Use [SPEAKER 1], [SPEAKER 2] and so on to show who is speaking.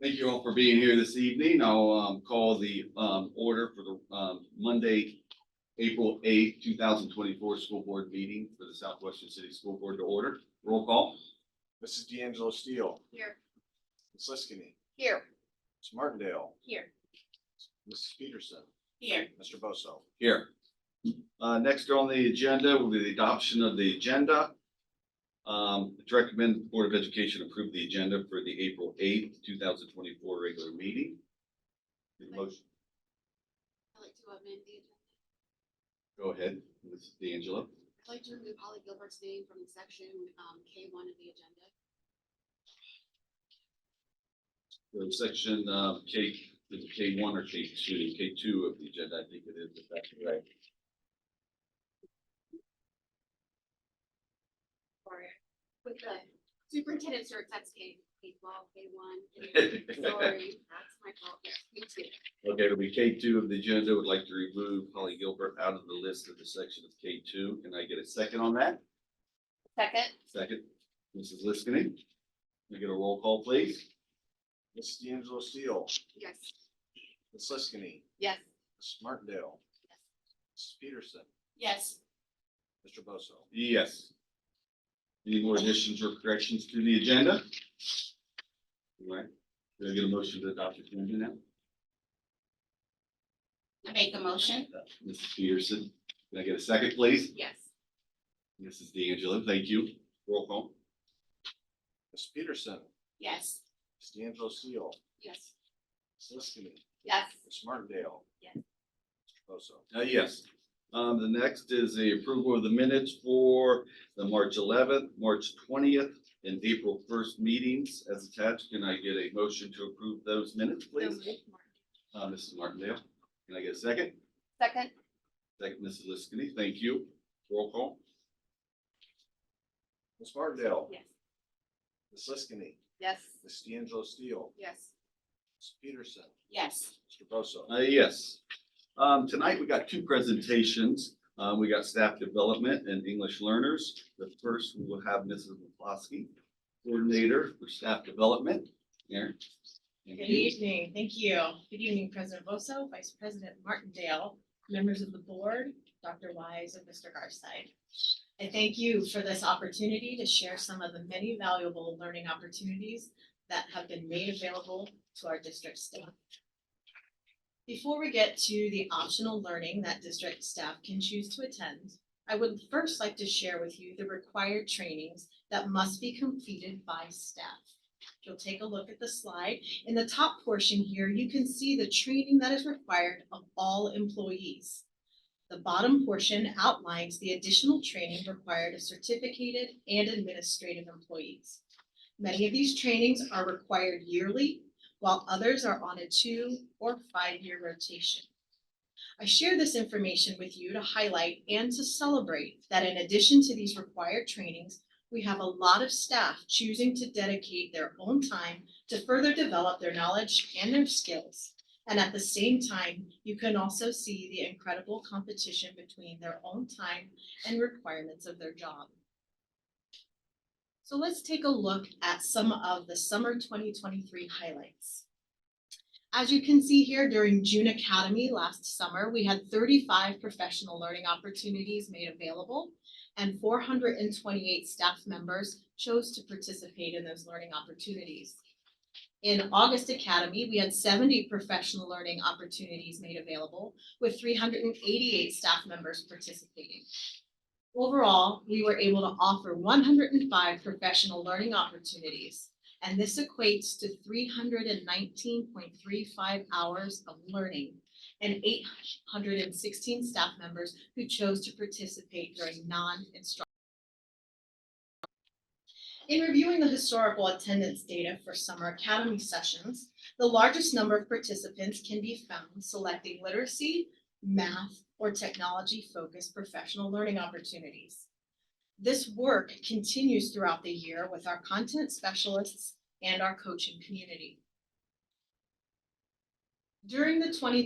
[SPEAKER 1] Thank you all for being here this evening. I'll um call the um order for the um Monday, April eighth, two thousand twenty-four school board meeting for the Southwestern City School Board to order. Roll call.
[SPEAKER 2] Mrs. D'Angelo Steele,
[SPEAKER 3] Here.
[SPEAKER 2] Ms. Liskini,
[SPEAKER 3] Here.
[SPEAKER 2] Ms. Martindale,
[SPEAKER 3] Here.
[SPEAKER 2] Mrs. Peterson,
[SPEAKER 3] Here.
[SPEAKER 2] Mr. Bosso.
[SPEAKER 1] Here. Uh, next on the agenda will be the adoption of the agenda. Um, to recommend the Board of Education approve the agenda for the April eighth, two thousand twenty-four regular meeting. Need a motion,
[SPEAKER 3] I'd like to amend the agenda.
[SPEAKER 1] go ahead, Mrs. D'Angelo.
[SPEAKER 3] I'd like to remove Holly Gilbert's name from section um K one of the agenda.
[SPEAKER 1] So Section uh, K, is it K one or K two? K two of the agenda, I think it is, if that's right.
[SPEAKER 3] Sorry. With the superintendent search, that's K, K twelve, K one. Sorry, that's my fault. Yes, me too.
[SPEAKER 1] Okay, it'll be K two of the agenda. Would like to remove Holly Gilbert out of the list of the section of K two. Can I get a second on that?
[SPEAKER 3] Second.
[SPEAKER 1] Second, Mrs. Liskini. Can we get a roll call, please?
[SPEAKER 2] Mrs. D'Angelo Steele,
[SPEAKER 3] Yes.
[SPEAKER 2] Ms. Liskini,
[SPEAKER 3] Yes.
[SPEAKER 2] Mrs. Martindale, Mrs. Peterson,
[SPEAKER 3] Yes.
[SPEAKER 2] Mr. Bosso.
[SPEAKER 1] Yes. Any more additions or corrections to the agenda? All right, can I get a motion to adopt the agenda now?
[SPEAKER 3] I make a motion.
[SPEAKER 1] Mrs. Peterson, can I get a second, please?
[SPEAKER 3] Yes.
[SPEAKER 1] Mrs. D'Angelo, thank you. Roll call.
[SPEAKER 2] Ms. Peterson,
[SPEAKER 3] Yes.
[SPEAKER 2] Ms. D'Angelo Steele,
[SPEAKER 3] Yes.
[SPEAKER 2] Ms. Liskini,
[SPEAKER 3] Yes.
[SPEAKER 2] Ms. Martindale.
[SPEAKER 3] Yes.
[SPEAKER 2] Mr. Bosso.
[SPEAKER 1] Uh, yes. Um, the next is the approval of the minutes for the March eleventh, March twentieth, and April first meetings as attached. Can I get a motion to approve those minutes, please? Uh, Mrs. Martindale, can I get a second?
[SPEAKER 3] Second.
[SPEAKER 1] Second, Mrs. Liskini, thank you. Roll call.
[SPEAKER 2] Ms. Martindale,
[SPEAKER 3] Yes.
[SPEAKER 2] Ms. Liskini,
[SPEAKER 3] Yes.
[SPEAKER 2] Ms. D'Angelo Steele,
[SPEAKER 3] Yes.
[SPEAKER 2] Ms. Peterson,
[SPEAKER 3] Yes.
[SPEAKER 2] Mr. Bosso.
[SPEAKER 1] Uh, yes. Um, tonight we got two presentations. Uh, we got staff development and English learners. The first, we will have Mrs. McCloskey, coordinator for staff development. Erin. Thank
[SPEAKER 4] Good
[SPEAKER 1] you.
[SPEAKER 4] evening, thank you. Good evening, President Bosso, Vice President Martindale, members of the board, Dr. Wise and Mr. Garside. I thank you for this opportunity to share some of the many valuable learning opportunities that have been made available to our district staff. Before we get to the optional learning that district staff can choose to attend, I would first like to share with you the required trainings that must be completed by staff. If You'll take a look at the slide in the top portion here, you can see the training that is required of all employees. The bottom portion outlines the additional training required of certificated and administrative employees. Many of these trainings are required yearly, while others are on a two or five-year rotation. I share this information with you to highlight and to celebrate that in addition to these required trainings, we have a lot of staff choosing to dedicate their own time to further develop their knowledge and their skills. And at the same time, you can also see the incredible competition between their own time and requirements of their job. So let's take a look at some of the summer twenty twenty-three highlights. As you can see here, during June Academy last summer, we had thirty-five professional learning opportunities made available and four hundred and twenty-eight staff members chose to participate in those learning opportunities. In August Academy, we had seventy professional learning opportunities made available with three hundred and eighty-eight staff members participating. Overall, we were able to offer one hundred and five professional learning opportunities. And this equates to three hundred and nineteen point three five hours of learning and eight hundred and sixteen staff members who chose to participate during non-instructional in reviewing the historical attendance data for summer academy sessions, the largest number of participants can be found selecting literacy, math, or technology-focused professional learning opportunities. This work continues throughout the year with our content specialists and our coaching community. During the 2020